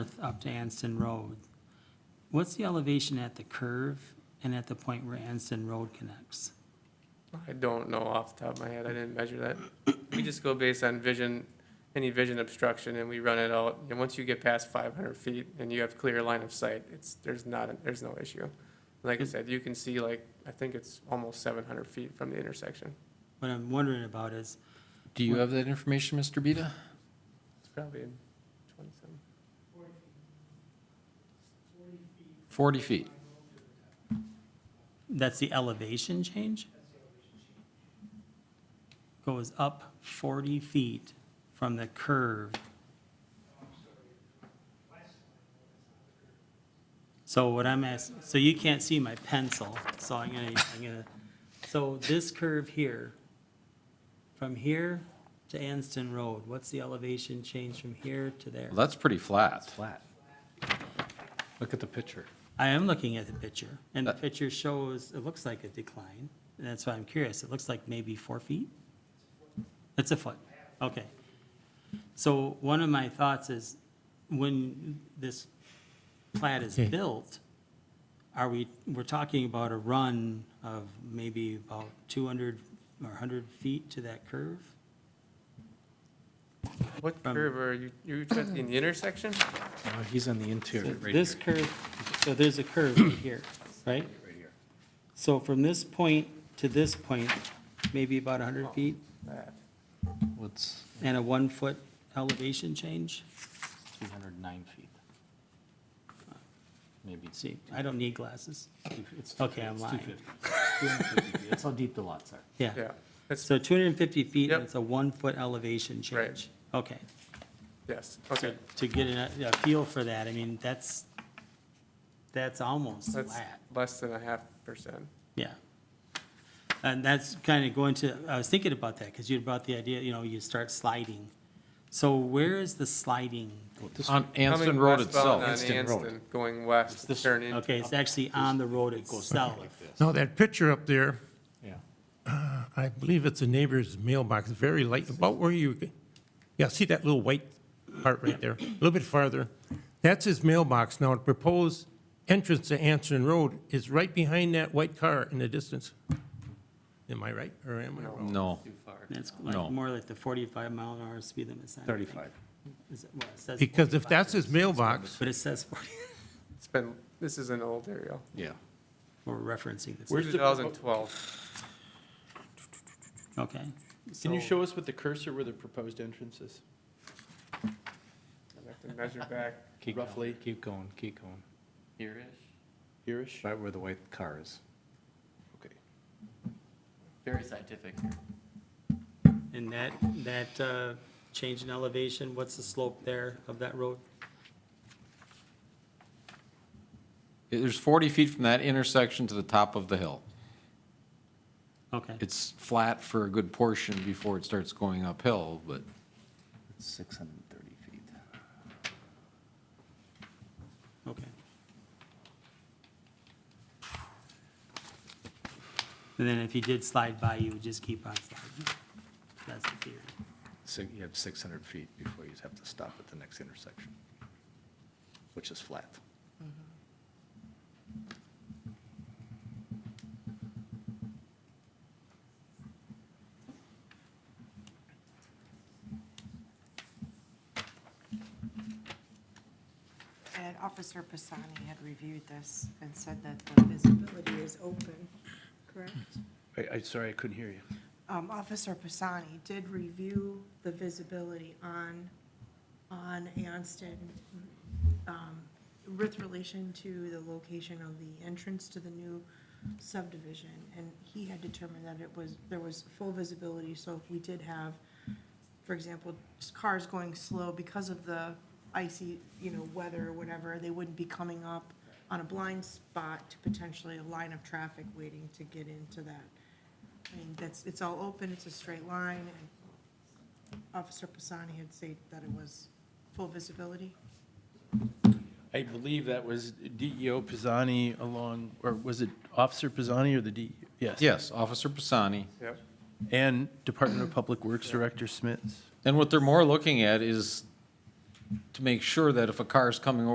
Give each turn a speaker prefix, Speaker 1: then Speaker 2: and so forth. Speaker 1: north up to Anston Road. What's the elevation at the curve and at the point where Anston Road connects?
Speaker 2: I don't know off the top of my head. I didn't measure that. We just go based on vision, any vision obstruction, and we run it out. And once you get past five hundred feet and you have clear line of sight, it's, there's not, there's no issue. Like I said, you can see like, I think it's almost seven hundred feet from the intersection.
Speaker 1: What I'm wondering about is,
Speaker 3: Do you have that information, Mr. Beta?
Speaker 2: It's probably in twenty-seven.
Speaker 3: 40 feet.
Speaker 1: that's the elevation change? Goes up 40 feet from the curve. So what I'm asking, so you can't see my pencil, so I'm gonna, I'm gonna, so this curve here, from here to Anston Road, what's the elevation change from here to there?
Speaker 3: Well, that's pretty flat.
Speaker 4: flat. Look at the picture.
Speaker 1: I am looking at the picture, and the
Speaker 3: Uh,
Speaker 1: picture shows, it looks like a decline, and that's why I'm curious. It looks like maybe four feet? It's a foot, okay. So one of my thoughts is, when this plat is built, are we, we're talking about a run of maybe about 200 or 100 feet to that curve?
Speaker 2: What
Speaker 1: From-
Speaker 2: curve are you, you touching the intersection?
Speaker 4: No, Uh, he's on the interior right
Speaker 1: This
Speaker 4: here.
Speaker 1: curve, so there's a curve right here, right?
Speaker 4: Right here.
Speaker 1: So from this point to this point, maybe about 100 feet?
Speaker 2: That.
Speaker 4: What's
Speaker 1: And a one-foot elevation change?
Speaker 4: 209 feet? Maybe. it's
Speaker 1: See, I don't need glasses.
Speaker 4: two- it's
Speaker 1: Okay, I'm
Speaker 4: it's
Speaker 1: lying.
Speaker 4: 250. 250 feet. That's how deep the lots are.
Speaker 1: Yeah.
Speaker 2: Yeah, that's,
Speaker 1: So 250 feet, and
Speaker 2: Yep.
Speaker 1: it's a one-foot elevation
Speaker 2: Right.
Speaker 1: change. Okay.
Speaker 2: yes, okay.
Speaker 1: To get a, a feel for that, I mean, that's, that's almost
Speaker 2: That's
Speaker 1: flat,
Speaker 2: less than a half percent.
Speaker 1: yeah. And that's kind of going to, I was thinking about that, because you brought the idea, you know, you start sliding. So where is the sliding?
Speaker 3: On Anston
Speaker 2: Coming
Speaker 3: Road
Speaker 2: westbound on
Speaker 3: itself.
Speaker 4: Anston Road.
Speaker 2: Anston, Going west,
Speaker 4: this-
Speaker 2: turn in.
Speaker 1: Okay, it's actually on the road
Speaker 4: It goes something
Speaker 1: itself.
Speaker 4: like this.
Speaker 5: Now, that picture up there,
Speaker 4: Yeah.
Speaker 5: I believe it's a neighbor's mailbox, very light, about where you, yeah, see that little white part right there, a little bit farther? That's his mailbox. Now, the proposed entrance to Anson Road is right behind that white car in the distance. Am I right, or am I wrong?
Speaker 3: No,
Speaker 1: That's like
Speaker 3: No.
Speaker 1: more like the 45 mile an hour speed limit sign. I think.
Speaker 4: 35.
Speaker 1: Is it- well, it says
Speaker 5: Because if
Speaker 1: 45.
Speaker 5: that's his mailbox,
Speaker 1: But it says 40,
Speaker 2: It's been, this is an old aerial.
Speaker 4: Yeah.
Speaker 1: we're referencing this,
Speaker 6: Where's the-
Speaker 2: 2012.
Speaker 1: okay.
Speaker 6: Can you
Speaker 1: so-
Speaker 6: show us with the cursor where the proposed entrance is,
Speaker 2: I have to measure back.
Speaker 4: Keep going,
Speaker 6: Roughly.
Speaker 4: Keep going, keep going.
Speaker 6: here-ish?
Speaker 4: Right where the white car is.
Speaker 6: Okay.
Speaker 7: Very scientific.
Speaker 1: And that, that uh, change in elevation, what's the slope there of that road?
Speaker 3: there's 40 feet from that intersection to the top of the hill.
Speaker 1: Okay,
Speaker 3: It's flat for a good portion before it starts going uphill, but
Speaker 4: It's 630 feet.
Speaker 1: okay. And then if you did slide by, you would just keep on sliding. That's the theory.
Speaker 4: So you have 600 feet before you have to stop at the next intersection, which is flat.
Speaker 8: And Officer Pisani had reviewed this and said that the visibility is open, correct?
Speaker 4: I, I, sorry, I couldn't hear you.
Speaker 8: Um, Officer Pisani did review the visibility on, on Anston, um, with relation to the location of the entrance to the new subdivision, and he had determined that it was, there was full visibility, so if we did have, for example, just cars going slow because of the icy, you know, weather or whatever, they wouldn't be coming up on a blind spot to potentially a line of traffic waiting to get into that. I mean, that's, it's all open, it's a straight line, and Officer Pisani had said that it was full visibility.
Speaker 6: I believe that was DEO Pisani along, or was it Officer Pisani or the D? E Yes.
Speaker 3: yes, Officer Pisani.
Speaker 2: Yep.
Speaker 6: And Department of Public Works Director Smits.
Speaker 3: And what they're more looking at is to make sure that if a car is coming over